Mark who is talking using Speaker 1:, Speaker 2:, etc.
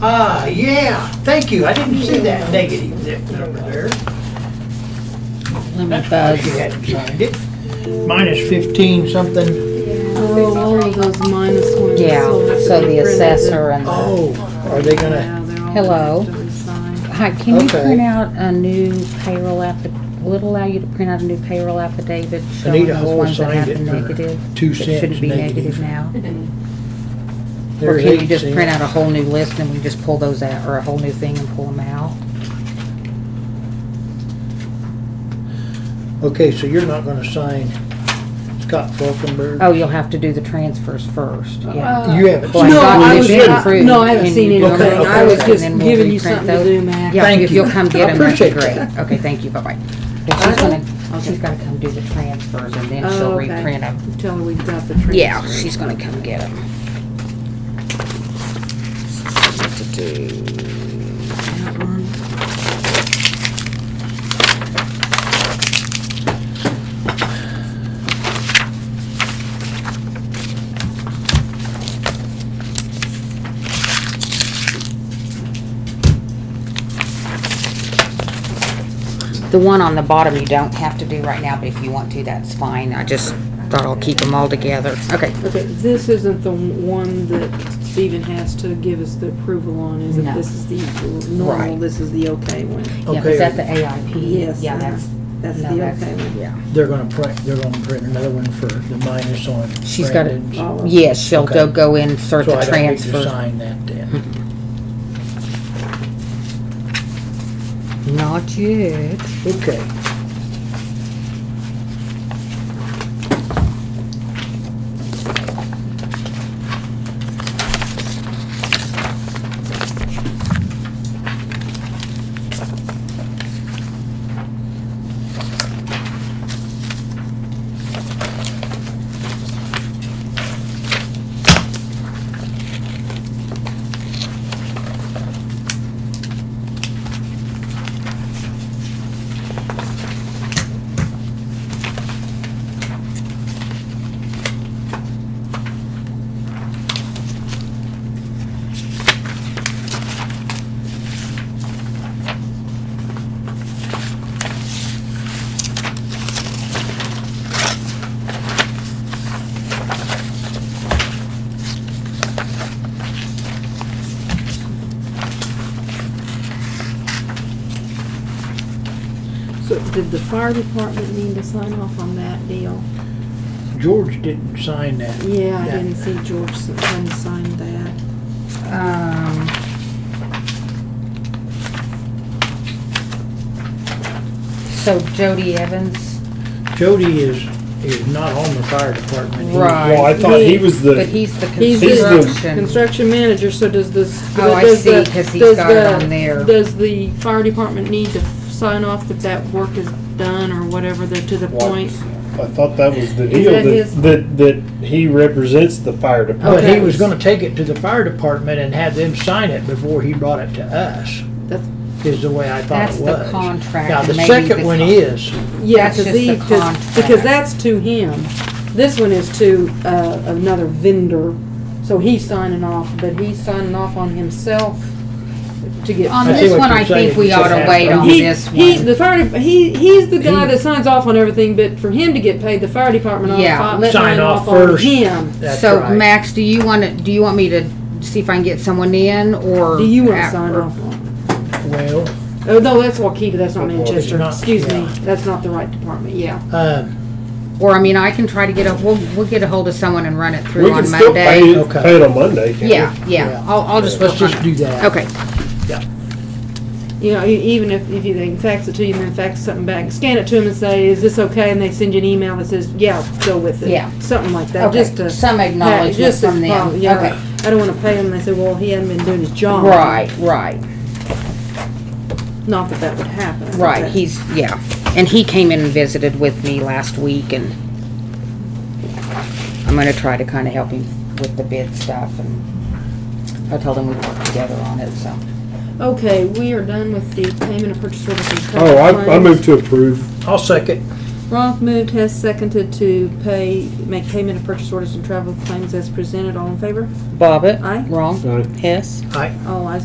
Speaker 1: Uh, yeah, thank you. I didn't see that negative zip number there.
Speaker 2: Let me
Speaker 1: That's why
Speaker 2: buzz.
Speaker 1: she hadn't signed it. Minus fifteen something.
Speaker 3: Oh, all of those minus ones.
Speaker 2: Yeah,
Speaker 3: still have to
Speaker 2: so
Speaker 3: be
Speaker 2: the
Speaker 3: printed.
Speaker 2: assessor and, the-
Speaker 1: Oh, are they gonna,
Speaker 3: Yeah, they're all
Speaker 2: Hello.
Speaker 3: gonna have to resign.
Speaker 2: hi, can you
Speaker 1: Okay.
Speaker 2: print out a new payroll affidavit? Will it allow you to print out a new payroll affidavit showing
Speaker 1: Anita
Speaker 2: those
Speaker 1: Hall
Speaker 2: ones that have
Speaker 1: signed it
Speaker 2: been
Speaker 1: for
Speaker 2: negative?
Speaker 1: two
Speaker 2: That
Speaker 1: cents
Speaker 2: shouldn't be
Speaker 1: negative.
Speaker 2: negative now? Or
Speaker 1: There's
Speaker 2: can you
Speaker 1: eight
Speaker 2: just print
Speaker 1: cents.
Speaker 2: out a whole new list and we just pull those out, or a whole new thing and pull them out?
Speaker 1: Okay, so you're not gonna sign Scott Falkenberg?
Speaker 2: Oh, you'll have to do the transfers first, yeah.
Speaker 1: You haven't.
Speaker 2: Well,
Speaker 1: signed
Speaker 3: No,
Speaker 1: it.
Speaker 2: thought
Speaker 3: I
Speaker 2: it
Speaker 3: was,
Speaker 2: had been
Speaker 3: I-
Speaker 2: approved
Speaker 3: no, I haven't
Speaker 2: and
Speaker 3: seen
Speaker 2: you
Speaker 3: anything.
Speaker 2: don't
Speaker 1: have
Speaker 3: I was
Speaker 1: it,
Speaker 3: just
Speaker 2: and then we'll
Speaker 3: giving you
Speaker 2: reprint
Speaker 3: something to
Speaker 2: those.
Speaker 3: do, Mac.
Speaker 2: Yeah,
Speaker 1: Thank
Speaker 2: if you'll
Speaker 1: you.
Speaker 2: come get
Speaker 1: I
Speaker 2: them, that'd be
Speaker 1: appreciate
Speaker 2: great. Okay, thank you, bye-bye. But she's gonna, oh, she's gotta come do the transfers and then she'll
Speaker 3: Oh, okay.
Speaker 2: reprint them.
Speaker 3: Tell her we've got the transfer.
Speaker 2: Yeah, she's gonna come get them. What to do?
Speaker 3: That one.
Speaker 2: The one on the bottom you don't have to do right now, but if you want to, that's fine. I just thought I'll keep them all together. Okay,
Speaker 3: Okay, this isn't the one that Stephen has to give us the approval on, is it?
Speaker 2: No.
Speaker 3: This is the normal,
Speaker 2: Right.
Speaker 3: this is the okay one.
Speaker 2: yeah,
Speaker 1: Okay.
Speaker 2: is that the AIP?
Speaker 3: Yes,
Speaker 2: Yeah,
Speaker 3: uh,
Speaker 2: that's,
Speaker 3: That's
Speaker 2: no,
Speaker 3: the
Speaker 2: that's,
Speaker 3: okay one.
Speaker 2: yeah.
Speaker 1: They're gonna print, they're gonna print another one for the minus on
Speaker 2: She's got it.
Speaker 1: Brandon's.
Speaker 3: Oh,
Speaker 2: Yes, she'll go,
Speaker 1: Okay.
Speaker 2: go insert
Speaker 1: So
Speaker 2: the
Speaker 1: I don't need to
Speaker 2: transfer.
Speaker 1: sign that then.
Speaker 2: Not yet.
Speaker 1: Okay.
Speaker 3: So did the fire department need to sign off on that deal?
Speaker 1: George didn't sign that.
Speaker 3: Yeah, I
Speaker 1: that.
Speaker 3: didn't see George s- hadn't signed that.
Speaker 2: Um, So Jody Evans,
Speaker 1: Jody is, is not on the fire department. He-
Speaker 2: Right.
Speaker 4: Well, I thought he was
Speaker 2: but
Speaker 4: the,
Speaker 2: he's the
Speaker 3: He's the
Speaker 2: construction.
Speaker 3: construction manager, so does this.
Speaker 2: Oh, I
Speaker 3: does the-
Speaker 2: see, 'cause he's
Speaker 3: does
Speaker 2: got it
Speaker 3: the-
Speaker 2: on there.
Speaker 3: Does the fire department need to f- sign off that that work is done or whatever, they're to the
Speaker 4: What?
Speaker 3: point?
Speaker 4: I thought that was the
Speaker 3: Is
Speaker 4: deal,
Speaker 3: that his-
Speaker 4: that, that, that he represents the fire
Speaker 1: But
Speaker 4: department.
Speaker 1: he
Speaker 3: Okay.
Speaker 1: was gonna take it to the fire department and have them sign it before he brought it to us,
Speaker 3: That's,
Speaker 1: is the way I thought
Speaker 2: That's
Speaker 1: it was.
Speaker 2: the contract.
Speaker 1: Now, the
Speaker 2: maybe
Speaker 1: second
Speaker 2: the
Speaker 1: one
Speaker 2: con-
Speaker 1: is,
Speaker 3: yeah,
Speaker 2: That's
Speaker 3: cause
Speaker 2: just
Speaker 3: he,
Speaker 2: the
Speaker 3: cause, because
Speaker 2: contract.
Speaker 3: that's to him. This one is to, uh, another vendor, so he's signing off, but he's signing off on himself to get.
Speaker 2: On
Speaker 1: I
Speaker 3: paid.
Speaker 1: see
Speaker 2: this
Speaker 1: what
Speaker 2: one,
Speaker 1: you're
Speaker 2: I think
Speaker 1: saying.
Speaker 2: we
Speaker 1: It's just
Speaker 2: ought to
Speaker 1: half
Speaker 2: wait
Speaker 1: done.
Speaker 2: on
Speaker 3: He-
Speaker 2: this
Speaker 3: He,
Speaker 2: one.
Speaker 3: the fire, dep- he, he's the guy
Speaker 1: He-
Speaker 3: that signs off on everything, but for him to get paid, the fire department ought to
Speaker 2: Yeah,
Speaker 3: fi-
Speaker 2: let-
Speaker 3: sign
Speaker 1: Sign
Speaker 3: off
Speaker 1: off
Speaker 3: on
Speaker 1: first.
Speaker 3: him.
Speaker 1: that's
Speaker 2: So
Speaker 1: right.
Speaker 2: Max, do you want to, do you want me to see if I can get someone in or?
Speaker 3: Do you wanna
Speaker 2: at-
Speaker 3: sign off on?
Speaker 1: Well,
Speaker 3: it? Oh, no, that's Waukeeta, that's not
Speaker 4: Well, it's
Speaker 3: Manchester,
Speaker 1: not-
Speaker 3: excuse me,
Speaker 1: yeah.
Speaker 3: that's not the right department, yeah.
Speaker 1: um,
Speaker 2: Or, I mean, I can try to get a, we'll, we'll get a hold of someone and run it
Speaker 4: We
Speaker 2: through
Speaker 4: can
Speaker 2: on
Speaker 4: still pay,
Speaker 2: Monday.
Speaker 4: it-
Speaker 1: Okay.
Speaker 4: pay it on Monday, can't we?
Speaker 2: Yeah, yeah,
Speaker 1: Yeah.
Speaker 2: I'll, I'll just.
Speaker 1: let's
Speaker 2: work on
Speaker 1: just
Speaker 2: it.
Speaker 1: do that.
Speaker 2: Okay,
Speaker 3: You know, e- even if, if you, they can fax it to you and then fax something back, scan it to them and say, is this okay? And they send you an email that says, yeah, go with it.
Speaker 2: Yeah.
Speaker 3: Something like that, just
Speaker 2: okay,
Speaker 3: to.
Speaker 2: some acknowledgement
Speaker 3: just to-
Speaker 2: from them,
Speaker 3: Yeah, right.
Speaker 2: okay.
Speaker 3: I don't wanna pay them, they say, well, he hadn't been doing his job.
Speaker 2: Right, right,
Speaker 3: Not that that would happen. I think
Speaker 2: right,
Speaker 3: that-
Speaker 2: he's, yeah, and he came in and visited with me last week and I'm gonna try to kinda help him with the bid stuff and I told him we'd work together on it, so.
Speaker 3: Okay, we are done with the payment of purchase orders and
Speaker 4: Oh,
Speaker 3: contract
Speaker 4: I, I
Speaker 3: claims.
Speaker 4: moved to approve.
Speaker 1: I'll second.
Speaker 3: Ronk moved, has seconded to pay, make payment of purchase orders and travel claims as presented. All in favor?
Speaker 2: Bobbit?
Speaker 3: Aye.
Speaker 4: uh,
Speaker 2: Wrong?
Speaker 4: Aye.
Speaker 2: Hess?
Speaker 1: I,
Speaker 3: All ayes